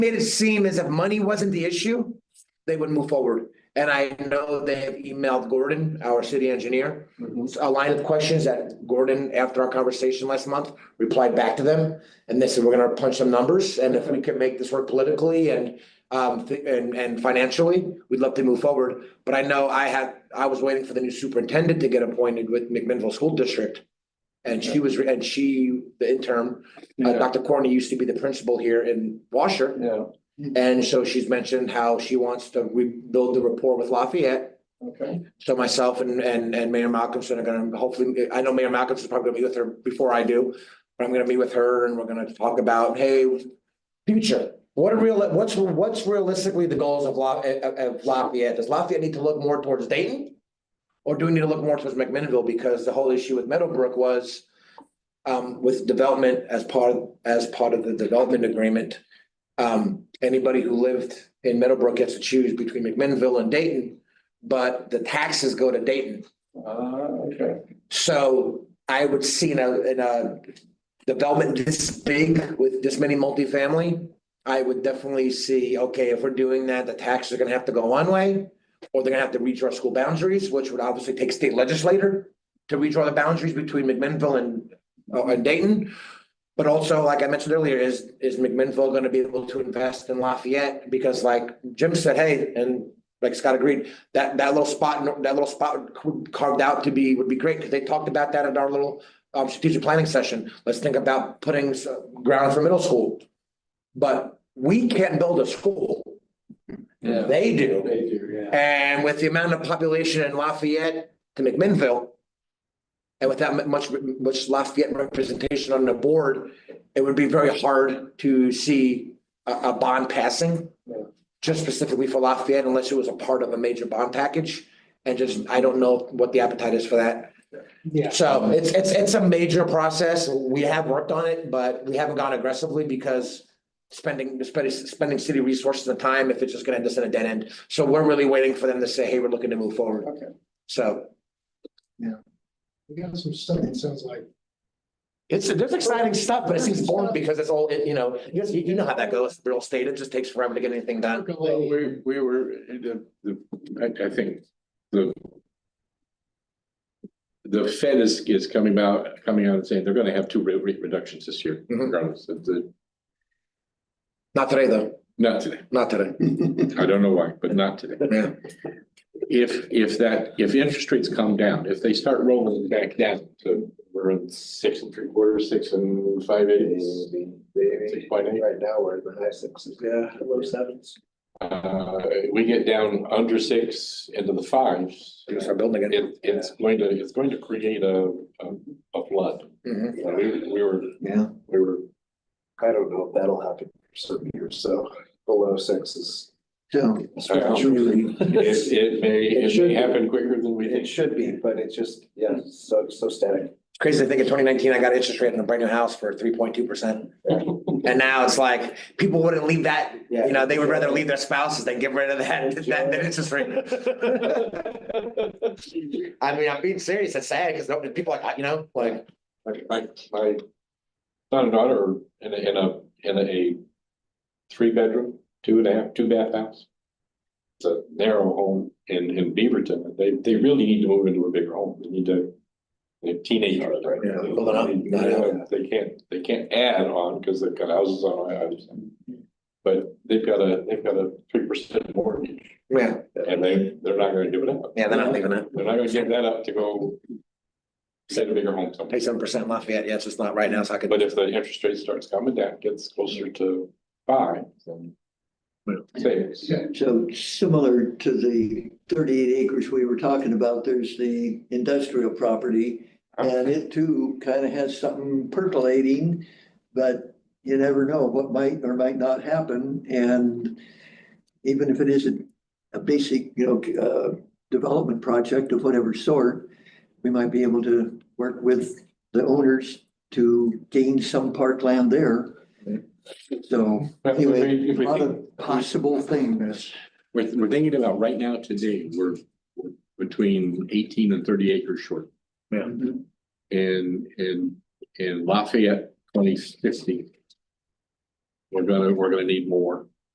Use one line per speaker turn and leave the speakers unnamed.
made it seem as if money wasn't the issue, they would move forward. And I know they have emailed Gordon, our city engineer, a line of questions that Gordon, after our conversation last month, replied back to them. And they said, we're gonna punch some numbers, and if we can make this work politically and um, thi- and, and financially, we'd love to move forward. But I know I had, I was waiting for the new superintendent to get appointed with McMinnville School District. And she was, re- and she, the interim, uh,
Yeah,
Dr. Corney used to be the principal here in Washer.
yeah,
And so she's mentioned how she wants to rebuild the rapport with Lafayette.
okay.
So myself and, and, and Mayor Malcolmson are gonna hopefully, I know Mayor Malcolmson's probably gonna be with her before I do. But I'm gonna be with her and we're gonna talk about, hey, future, what are real, what's, what's realistically the goals of La, of- of Lafayette? Does Lafayette need to look more towards Dayton? Or do we need to look more towards McMinnville? Because the whole issue with Meadowbrook was um, with development as part, of- as part of the development agreement. Um, anybody who lived in Meadowbrook gets to choose between McMinnville and Dayton but the taxes go to Dayton.
Ah, okay.
So I would see in a, in a development this big with this many multifamily, I would definitely see, okay, if we're doing that, the taxes are gonna have to go one way, or they're gonna have to redraw school boundaries, which would obviously take state legislator to redraw the boundaries between McMinnville and, uh, and Dayton. But also, like I mentioned earlier, is, is McMinnville gonna be able to invest in Lafayette? Because like Jim said, hey, and like Scott agreed, that, that little spot, that little spot carved out to be, would be great, because they talked about that at our little um, strategic planning session. Let's think about putting s- ground for middle school. But we can't build a school.
Yeah.
They do.
They do, yeah.
And with the amount of population in Lafayette to McMinnville, and without mu- much, much Lafayette representation on the board, it would be very hard to see a, a bond passing
Yeah.
just specifically for Lafayette unless it was a part of a major bond package. And just, I don't know what the appetite is for that.
Yeah.
So it's, it's, it's a major process. We have worked on it, but we haven't gone aggressively because spending, spending, spending city resources and time if it's just gonna end us in a dead end. So we're really waiting for them to say, hey, we're looking to move forward.
Okay.
So
We got some stuff, it sounds like.
it's, there's exciting stuff, but it seems boring because it's all, it- you know, you, you know how that goes, real estate, it just takes forever to get anything done.
Well, we, we were, the, the, I, I think the. The Fed is, is coming out, coming out and saying they're gonna have two rate rate reductions this year,
Mhm.
regardless of the,
Not today, though,
not today.
not today.
I don't know why, but not today.
Yeah.
If, if that, if interest rates come down, if they start rolling back down to, we're in six and three quarters, six and five eighths. Six point eight.
Right now, we're in the high sixes. Yeah. Low sevens.
Uh, we get down under six into the fives.
We're gonna start building again.
It, it's going to, it's going to create a, a, a flood.
Mhm.
You know, We, we were,
Yeah.
we were,
I don't know if that'll happen for some years, so below sixes.
it, it may, it may happen quicker than we
It
think.
should be, but it's just, yeah, so, so static.
It's Crazy to think in twenty nineteen, I got interest rate on a brand new house for three point two percent. And now it's like, people wouldn't leave that,
Yeah.
you know, they would rather leave their spouses than get rid of that, that, that interest rate. I mean, I'm being serious, it's sad, because people like, you know, like,
Like, My, my son and daughter are in a, in a, in a three bedroom, two and a half, two bath house. It's a narrow home in, in Beaverton. They, they really need to move into a bigger home. They need to, they have teenagers. right?
Yeah, building up,
They-
not
out.
They can't, they can't add on because they've got houses on islands. But they've got a, they've got a three percent mortgage
yeah,
and they, they're not gonna give it up.
yeah, they're not leaving it.
They're not gonna give that up to go get a bigger home somewhere.
Pay seven percent Lafayette, yeah, it's just not right now, so I could.
But if the interest rate starts coming down, gets closer to five, then. Six.
So similar to the thirty-eight acres we were talking about, there's the industrial property. And it too kind of has something percolating, but you never know what might or might not happen. And even if it isn't a basic, you know, uh, development project of whatever sort, we might be able to work with the owners to gain some parkland there. So
But if we- if
anyway, a
we
lot
think-
of possible things.
We're, we're thinking about right now today, we're, we're between eighteen and thirty acres short.
Yeah.
And, and, and Lafayette twenty fifty. We're gonna, we're gonna need more.